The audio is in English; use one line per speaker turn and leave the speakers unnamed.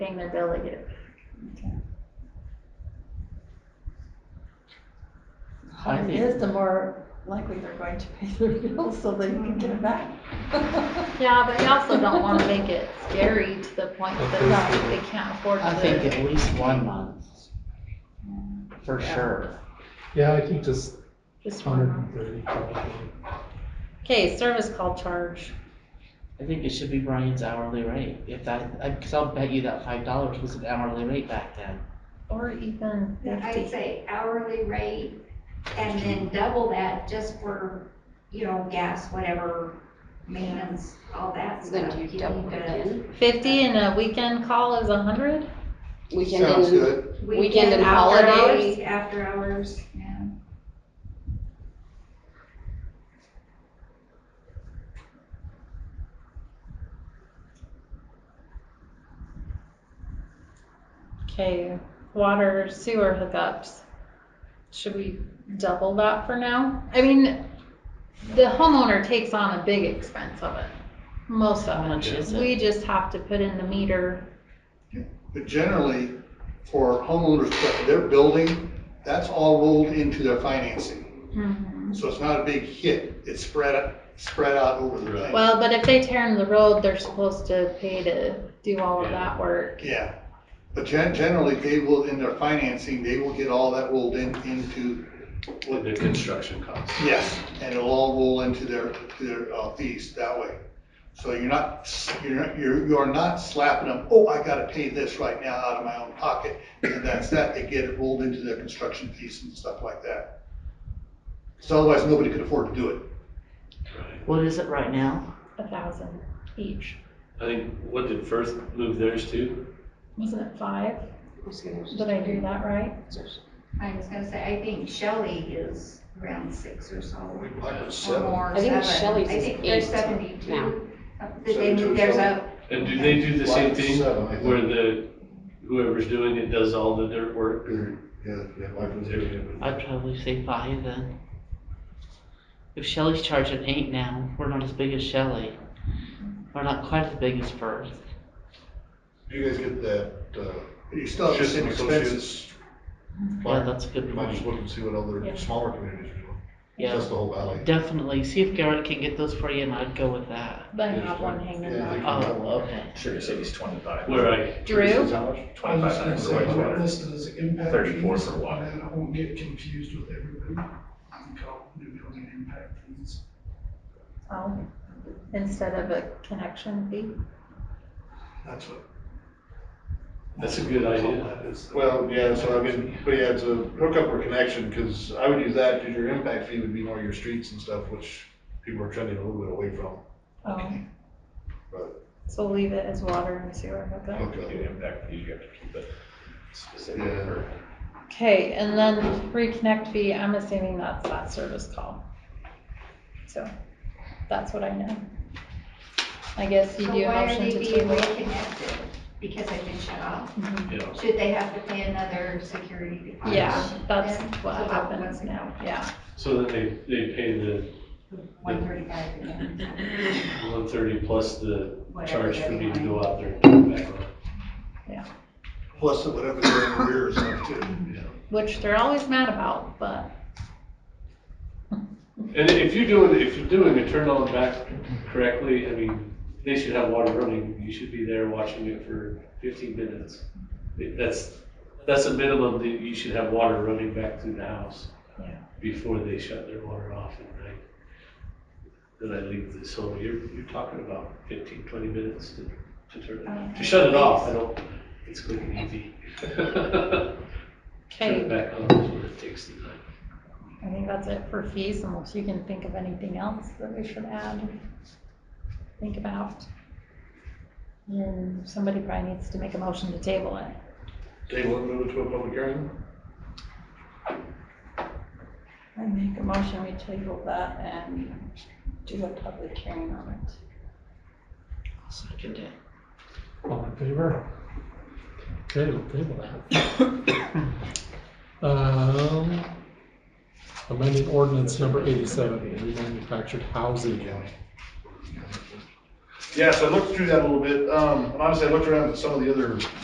became a delegate.
I
It
think-
is, the more likely they're going to pay their bills so they can get it back.
Yeah, but you also don't want to make it scary to the point that they can't afford
I think
to.
at least one month. For sure.
Yeah, I think just
Just
hundred
one.
and thirty probably.
Okay, service call charge.
I think it should be Brian's hourly rate, if that, I, cause I'll bet you that five dollars was an hourly rate back then.
Or even
I'd
fifty.
say hourly rate and then double that just for, you know, gas, whatever, maintenance, all that
Then
stuff.
you
You
double
need
it
to-
again.
Fifty and a weekend call is a hundred?
Weekend
Sounds
and
good.
Weekend and
after
holiday.
hours- After hours, yeah.
Okay, water sewer hookups. Should we double that for now? I mean, the homeowner takes on a big expense of it, most
How
of
much is
it.
it?
We just have to put in the meter.
But generally, for homeowners, but their building, that's all rolled into their financing.
Hmm.
So it's not a big hit. It's spread, out- spread out over the thing.
Well, but if they tear in the road, they're supposed to pay to do all of that work.
Yeah. But gen- generally, they will, in their financing, they will get all that rolled in, into,
With the construction costs.
yes, and it'll all roll into their, to their uh, fees that way. So you're not, you're, not- you're, you're not slapping them, oh, I gotta pay this right now out of my own pocket. And that's that. They get it rolled into their construction fees and stuff like that. So otherwise, nobody could afford to do it.
What is it right now?
A thousand each.
I think, what did first move theirs to?
Wasn't it five? Did I do
Weekend.
that right?
I was gonna say, I think Shelley is around six or so, or more,
I think
seven.
Shelley's
I
is
think they're
eight now.
seventy-two. Uh, They
Seventy-two,
moved theirs
Shelley?
up,
And do they do the same
Five to
thing
seven, I think.
where the, whoever's doing it does all the dirt work or?
Yeah, yeah,
I'd probably say five then. If Shelley's charging eight now, we're not as big as Shelley. We're not quite as big as Firth.
You guys get that, uh,
You still have the
Just
same expenses.
associates,
Yeah,
Fine.
that's a
you
good
might just
point.
look and see what other smaller communities are doing,
Yeah,
just the whole valley.
definitely. See if Garrett can get those for you and I'd go with that.
But I have one hanging
Yeah,
up.
they
Oh,
can double up.
okay.
Sugar City's twenty-five.
Where I,
Drew?
I was
Twenty-five
gonna
hundred
say,
for wastewater.
this is impact
34
fees,
for water.
and I won't get confused with everybody. I'm called new building impact fees.
Oh, instead of a connection fee?
That's what.
That's a good idea.
That is.
Well, yeah, so I mean, but yeah, it's a hookup or connection, because I would use that, because your impact fee would be more your streets and stuff, which people are trending a little bit away from.
Oh.
Right.
So leave it as water and sewer hookup.
If you do impact fees, you have to keep it specific
Yeah.
for
Okay, and then reconnect fee, I'm assuming that's that service call. So, that's what I know. I guess you
so
do a
why are
motion
they
to
being
table. Mm-hmm.
reconnected? Because they've been shut off?
you know,
Should they have to pay another security deposit?
Yeah, that's
Then,
what
so that
happens
wasn't-
now, yeah.
so that they, they pay the
One thirty-five again,
one thirty plus the
whatever.
charge for
that
me to
might-
go out there and turn it back on.
Plus whatever their arrears are too.
Which they're always mad about, but
And if you're doing, if you're doing a turn on back correctly, I mean, they should have water running, you should be there watching it for fifteen minutes. That's, that's a minimum that you should have water running back through the house.
Yeah.
Before they shut their water off at night. Then I leave this home, you're, you're talking about 15, 20 minutes to, to turn it, to shut it off, I don't, it's quick and easy. Turn it
Okay,
back on is what it takes to night.
I think that's it for fees unless you can think of anything else that we should add, think about. And somebody probably needs to make a motion to table it.
Table and move it to a public hearing?
I make a motion, we table that and do a public hearing on it.
I'll second it.
All in favor? Okay, we'll table that. Um, amending ordinance number eighty-seven, remanufactured housing.
Yeah, so I looked through that a little bit, um, and honestly, I looked around at some of the other